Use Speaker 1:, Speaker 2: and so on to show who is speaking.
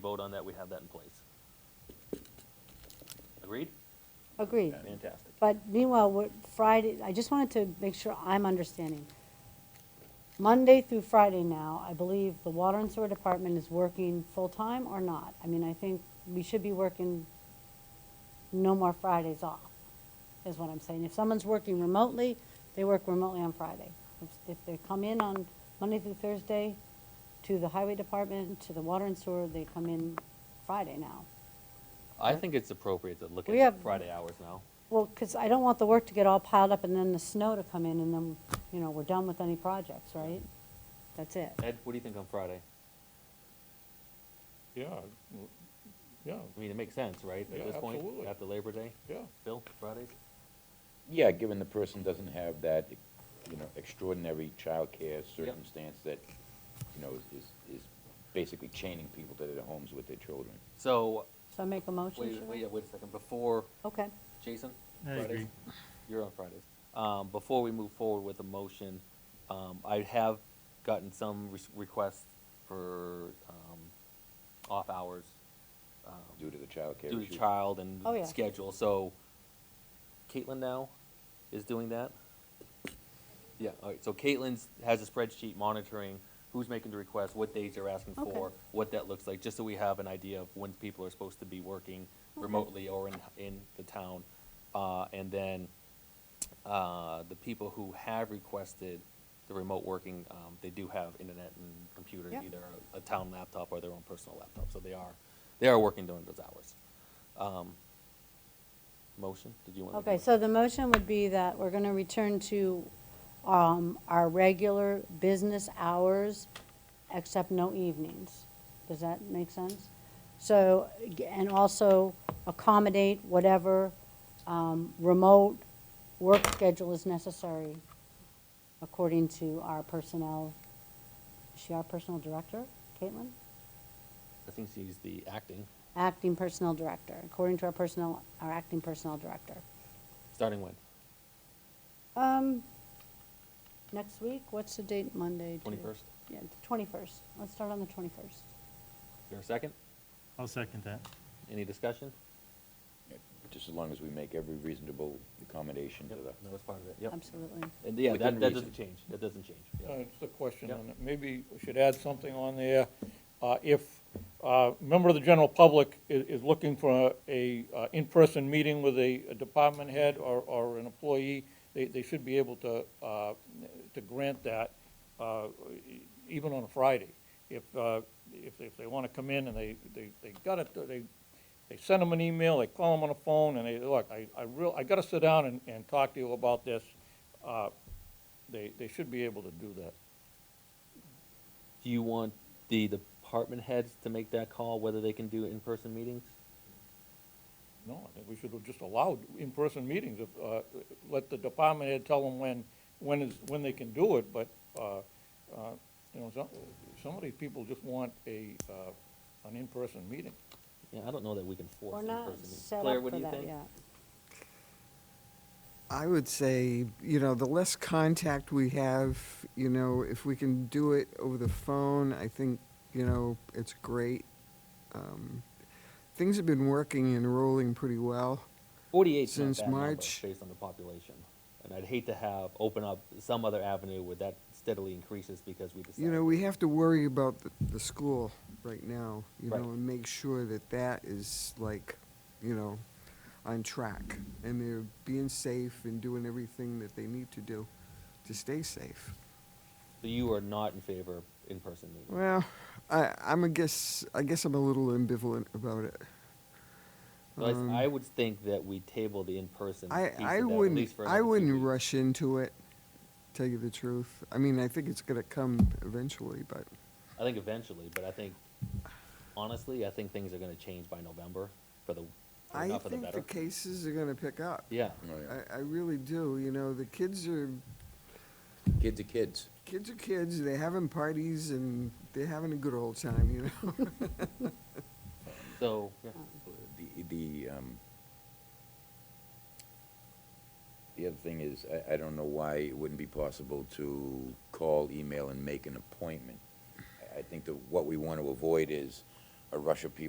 Speaker 1: vote on that, we have that in place. Agreed?
Speaker 2: Agreed.
Speaker 1: Fantastic.
Speaker 2: But meanwhile, what Friday, I just wanted to make sure I'm understanding. Monday through Friday now, I believe the Water and Sewer Department is working full-time or not? I mean, I think we should be working no more Fridays off, is what I'm saying. If someone's working remotely, they work remotely on Friday. If- If they come in on Monday through Thursday to the Highway Department, to the Water and Sewer, they come in Friday now.
Speaker 1: I think it's appropriate to look
Speaker 2: We
Speaker 1: at
Speaker 2: have-
Speaker 1: Friday hours now.
Speaker 2: Well, because I don't want the work to get all piled up and then the snow to come in and then, you know, we're done with any projects, right? That's it.
Speaker 1: Ed, what do you think on Friday?
Speaker 3: Yeah, w- yeah,
Speaker 1: I mean, it makes sense, right,
Speaker 3: Yeah,
Speaker 1: at this point,
Speaker 3: absolutely.
Speaker 1: after Labor Day?
Speaker 3: yeah.
Speaker 1: Bill, Fridays?
Speaker 4: Yeah, given the person doesn't have that, you know, extraordinary childcare circumstance that, you know, is, is, is basically chaining people to their homes with their children.
Speaker 1: So,
Speaker 2: So I make a motion,
Speaker 1: wait,
Speaker 2: should I?
Speaker 1: wait, wait a second, before,
Speaker 2: Okay,
Speaker 1: Jason?
Speaker 5: I
Speaker 1: Fridays?
Speaker 5: agree.
Speaker 1: You're on Fridays. Um, before we move forward with the motion, um, I have gotten some re- requests for, um, off hours. um,
Speaker 4: Due to the childcare
Speaker 1: due
Speaker 4: issue.
Speaker 1: to child and
Speaker 2: Oh, yeah.
Speaker 1: schedule. So Caitlin now is doing that. Yeah. All right. So Caitlin's has a spreadsheet monitoring who's making the request, what days they're asking
Speaker 2: Okay.
Speaker 1: for, what that looks like, just so we have an idea of when people are supposed to be working remotely or in in the town, uh, and then uh, the people who have requested the remote working, um, they do have internet and computers,
Speaker 2: Yep.
Speaker 1: either a town laptop or their own personal laptop, so they are, they are working during those hours. Um, Motion, did you want? to
Speaker 2: okay, so the motion would be that we're gonna return to, um, our regular business hours, except no evenings. Does that make sense? So, g- and also accommodate whatever, um, remote work schedule is necessary according to our personnel, is she our personnel director, Caitlin?
Speaker 1: I think she's the acting,
Speaker 2: Acting personnel director, according to our personnel, our acting personnel director.
Speaker 1: starting when,
Speaker 2: Um, next week, what's the date, Monday? do-
Speaker 1: twenty-first?
Speaker 2: Yeah, the twenty-first. Let's start on the twenty-first.
Speaker 1: Is there a second?
Speaker 5: I'll second that.
Speaker 1: Any discussion?
Speaker 4: Just as long as we make every reasonable accommodation to the,
Speaker 1: That was part of it, yep.
Speaker 2: Absolutely.
Speaker 1: And yeah,
Speaker 4: Within
Speaker 1: that, that doesn't
Speaker 4: reason.
Speaker 1: change, that doesn't change, yeah.
Speaker 3: Uh, Just a question
Speaker 1: Yeah.
Speaker 3: on it. Maybe we should add something on there. Uh, If uh, a member of the general public is, is looking for a, a, uh, in-person meeting with a, a department head or, or an employee, they, they should be able to, uh, to grant that, uh, e- even on a Friday. If, uh, if, if they want to come in and they, they, they got it, they, they send them an email, they call them on the phone, and they, look, I, I real, I gotta sit down and, and talk to you about this, uh, they, they should be able to do that.
Speaker 1: Do you want the department heads to make that call, whether they can do in-person meetings?
Speaker 3: No, I think we should have just allowed in-person meetings, if, uh, let the department head tell them when, when is, when they can do it, but, uh, uh, you know, some, some of these people just want a, uh, an in-person meeting.
Speaker 1: Yeah, I don't know that we can force
Speaker 2: We're
Speaker 1: in-person
Speaker 2: not
Speaker 1: meetings.
Speaker 2: set
Speaker 1: Claire,
Speaker 2: up
Speaker 1: what do
Speaker 2: for
Speaker 1: you
Speaker 2: that
Speaker 1: think?
Speaker 2: yet.
Speaker 6: I would say, you know, the less contact we have, you know, if we can do it over the phone, I think, you know, it's great. Um, things have been working and rolling pretty well.
Speaker 1: Forty-eight's not a
Speaker 6: Since
Speaker 1: bad number,
Speaker 6: March-
Speaker 1: based on the population. And I'd hate to have, open up some other avenue where that steadily increases because we decide.
Speaker 6: You know, we have to worry about the, the school right now, you
Speaker 1: Right.
Speaker 6: know, and make sure that that is like, you know, on track. And they're being safe and doing everything that they need to do to stay safe.
Speaker 1: So you are not in favor of in-person meetings?
Speaker 6: Well, I, I'm a guess. I guess I'm a little ambivalent about it.
Speaker 1: So I s-
Speaker 6: um,
Speaker 1: I would think that we table the in-person piece
Speaker 6: I,
Speaker 1: of that,
Speaker 6: I
Speaker 1: at
Speaker 6: wouldn't.
Speaker 1: least for
Speaker 6: I
Speaker 1: another two
Speaker 6: wouldn't
Speaker 1: weeks.
Speaker 6: rush into it. Tell you the truth. I mean, I think it's gonna come eventually, but
Speaker 1: I think eventually, but I think, honestly, I think things are gonna change by November for the, for
Speaker 6: I
Speaker 1: not for the
Speaker 6: think
Speaker 1: better.
Speaker 6: the cases are gonna pick up.
Speaker 1: Yeah,
Speaker 4: Oh, yeah.
Speaker 6: I, I really do. You know, the kids are
Speaker 4: kids are kids.
Speaker 6: kids are kids. They're having parties and they're having a good old time. You know.
Speaker 1: so, yeah.
Speaker 4: The, the, um, the other thing is, I, I don't know why it wouldn't be possible to call, email, and make an appointment. I- I think that what we want to avoid is a rush of people